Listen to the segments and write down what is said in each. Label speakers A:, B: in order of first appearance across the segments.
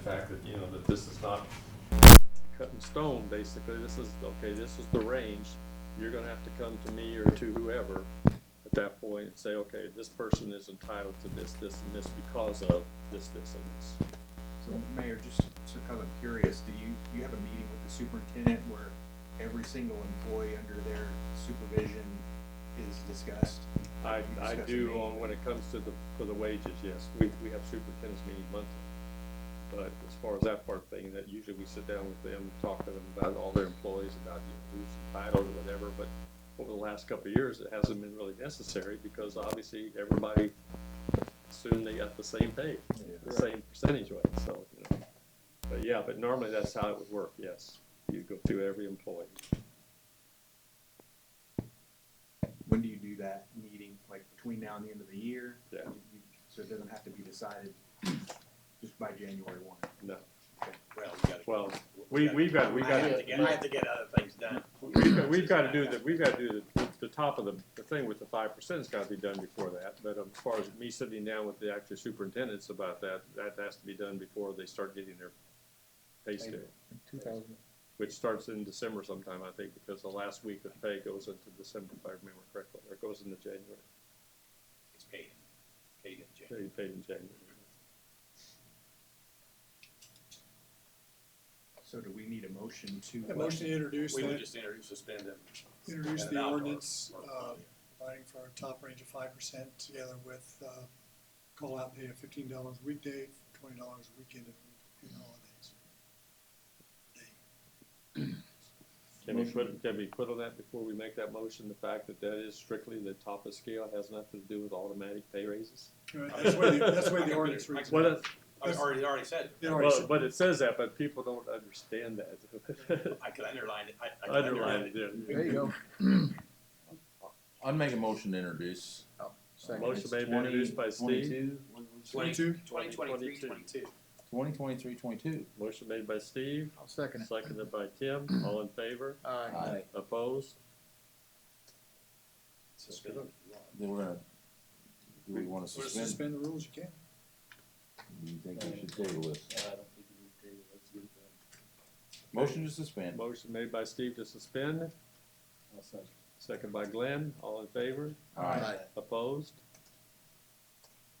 A: fact that, you know, that this is not cut in stone, basically, this is, okay, this is the range, you're gonna have to come to me or to whoever at that point and say, okay, this person is entitled to this, this, and this because of this, this, and this.
B: So Mayor, just so kind of curious, do you, you have a meeting with the superintendent where every single employee under their supervision is discussed?
A: I,
B: You
A: I
B: discuss
A: do
B: the
A: on, when it comes to the, for the wages, yes, we, we have superintendent's meeting monthly. But as far as that part thing, that usually we sit down with them, talk to them about all their employees, about you know, who's entitled or whatever, but over the last couple of years, it hasn't been really necessary, because obviously, everybody assumed they got the same pay, the same percentage rate, so, you know. But yeah, but normally that's how it would work, yes, you go through every employee.
B: When do you do that meeting, like between now and the end of the year?
A: Yeah.
B: You- you- So it doesn't have to be decided just by January one?
A: No,
C: Well, we gotta.
A: well, we, we've got, we've
C: I
A: got.
C: have to get, I have to get other things done.
A: We've got, we've gotta do the, we've gotta do the, the top of the, the thing with the five percent's gotta be done before that, but um, as far as me sitting down with the actual superintendents about that, that has to be done before they start getting their pay scale,
D: Two thousand.
A: which starts in December sometime, I think, because the last week of pay goes into December, if I remember correctly, or it goes into January,
C: It's paid, paid in January.
A: they paid in January.
B: So do we need a motion to?
E: A motion to introduce
C: We would
E: that,
C: just introduce, suspend them.
E: introduce
C: and
E: the
C: adopt or-
E: ordinance,
C: or-
E: uh, providing for a top range of five percent together with, uh, call out pay of fifteen dollars weekday, twenty dollars weekend and and holidays.
A: Can we put, can we put on that before we make that motion, the fact that that is strictly the top of scale, has nothing to do with automatic pay raises?
E: All right, That's where the, that's where the ordinance reads.
A: What, if-
E: uh,
C: I already, already said, it.
E: They already
A: Well,
E: said-
A: but it says that, but people don't understand that.
C: I could underline it, I, I could
A: Underline
C: underline
A: it, yeah.
D: There you go.
F: I'd make a motion to introduce.
A: Motion made and introduced by Steve,
C: it.
E: Twenty-two?
C: Twenty twenty-three,
A: 22.
C: twenty-two.
F: Twenty twenty-three, twenty-two.
A: motion made by Steve,
D: I'll second it.
A: seconded by Tim, all in favor,
D: Aye.
A: opposed?
C: Suspend.
F: Then we're gonna, do we wanna
E: Wanna
F: suspend?
E: Suspend the rules, you can.
F: Do you think we should table this? Motion to suspend.
A: Motion made by Steve to suspend, seconded by Glenn, all in favor,
F: Aye.
A: opposed?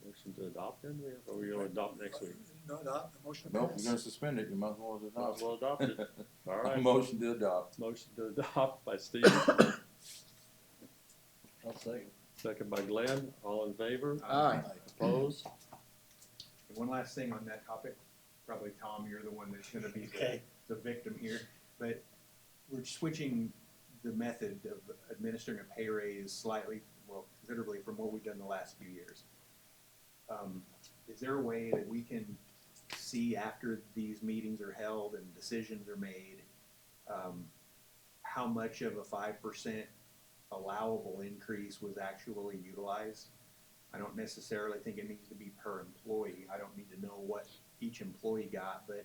A: Motion to adopt then, we have, or we gonna adopt next week?
E: No, not, the motion.
F: Nope,
E: passed.
F: you're gonna suspend it, you might as well
A: Might as well
F: adopt.
A: adopt it, all right.
F: Motion to adopt.
A: Motion to adopt by Steve,
D: I'll second.
A: seconded by Glenn, all in favor,
B: Um,
D: Aye.
A: opposed?
B: And One last thing on that topic, probably Tom, you're the one that's gonna be the,
C: Okay.
B: the victim here, but we're switching the method of administering a pay raise slightly, well, considerably from what we've done the last few years. Um, Is there a way that we can see after these meetings are held and decisions are made, um, how much of a five percent allowable increase was actually utilized? I don't necessarily think it needs to be per employee. I don't need to know what each employee got, but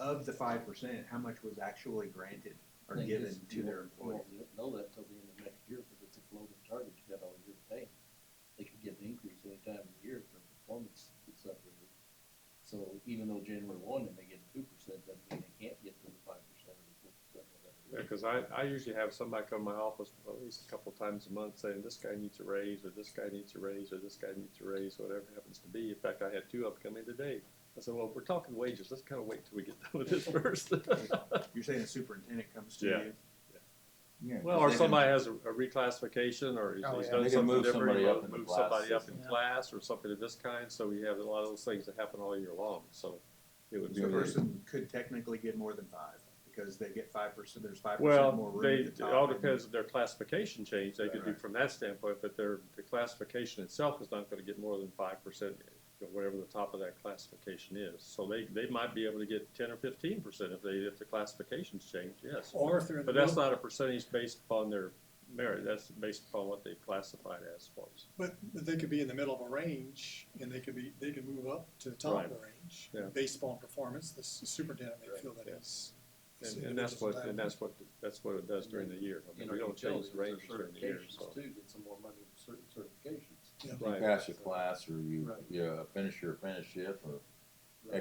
B: of the five percent, how much was actually granted or
G: Thing
B: given
G: is,
B: to
G: you
B: their
G: won't- you
B: employees?
G: won't kn- Know that till the end of next year, because it's a floating target, you got all year to pay. They could get an increase any time of the year if their performance is separated. So even though January one, they may get two percent, doesn't mean they can't get to the five percent or the four percent,
A: Yeah,
G: whatever. it is.
A: because I, I usually have somebody come to my office at least a couple times a month saying, this guy needs a raise, or this guy needs a raise, or this guy needs a raise, whatever it happens to be. In fact, I had two up coming today. I said, well, we're talking wages, let's kind of wait till we get done with this first.
B: You're saying the superintendent comes to
A: Yeah.
B: you?
F: Yeah.
A: Well, or somebody has a a reclassification, or he's
D: Oh,
A: he's
D: yeah.
A: done
F: They can
A: something
F: move
A: different,
F: somebody
A: he
F: up
A: mo-
F: in the
A: moved
F: class
A: somebody up in
D: system. Yeah.
A: class, or something of this kind, so we have a lot of those things that happen all year long, so it would be.
B: So the
F: Yeah.
B: person could technically get more than five because they get five percent, there's five percent more
A: Well,
B: room
A: they,
B: at
A: it
B: the top.
A: all depends on their classification change, they could do
B: Right.
A: from that standpoint, but their, the classification itself is not gonna get more than five percent, whatever the top of that classification is, so they, they might be able to get ten or fifteen percent if they, if the classifications change, yes.
E: Or if they're in the
A: But that's
E: middle,
A: not a percentage based upon their merit, that's based upon what they classified as for us.
E: but but they could be in the middle of a range, and they could be, they could move up to the top of the range.
A: Yeah.
E: Based upon performance, the s- superintendent may feel that
A: Yeah.
E: he's. this
A: And, and that's
E: individual's
A: what, and that's what, that's what it does during the year, I
G: You
A: mean,
G: know,
A: we don't change
G: utilities,
A: the
G: there's
A: ranges during the year,
G: certifications
A: so.
G: Too, get some more money for certain certifications.
A: Right,
F: Pass your class, or you,
G: Right.
F: you uh, finish your apprenticeship, or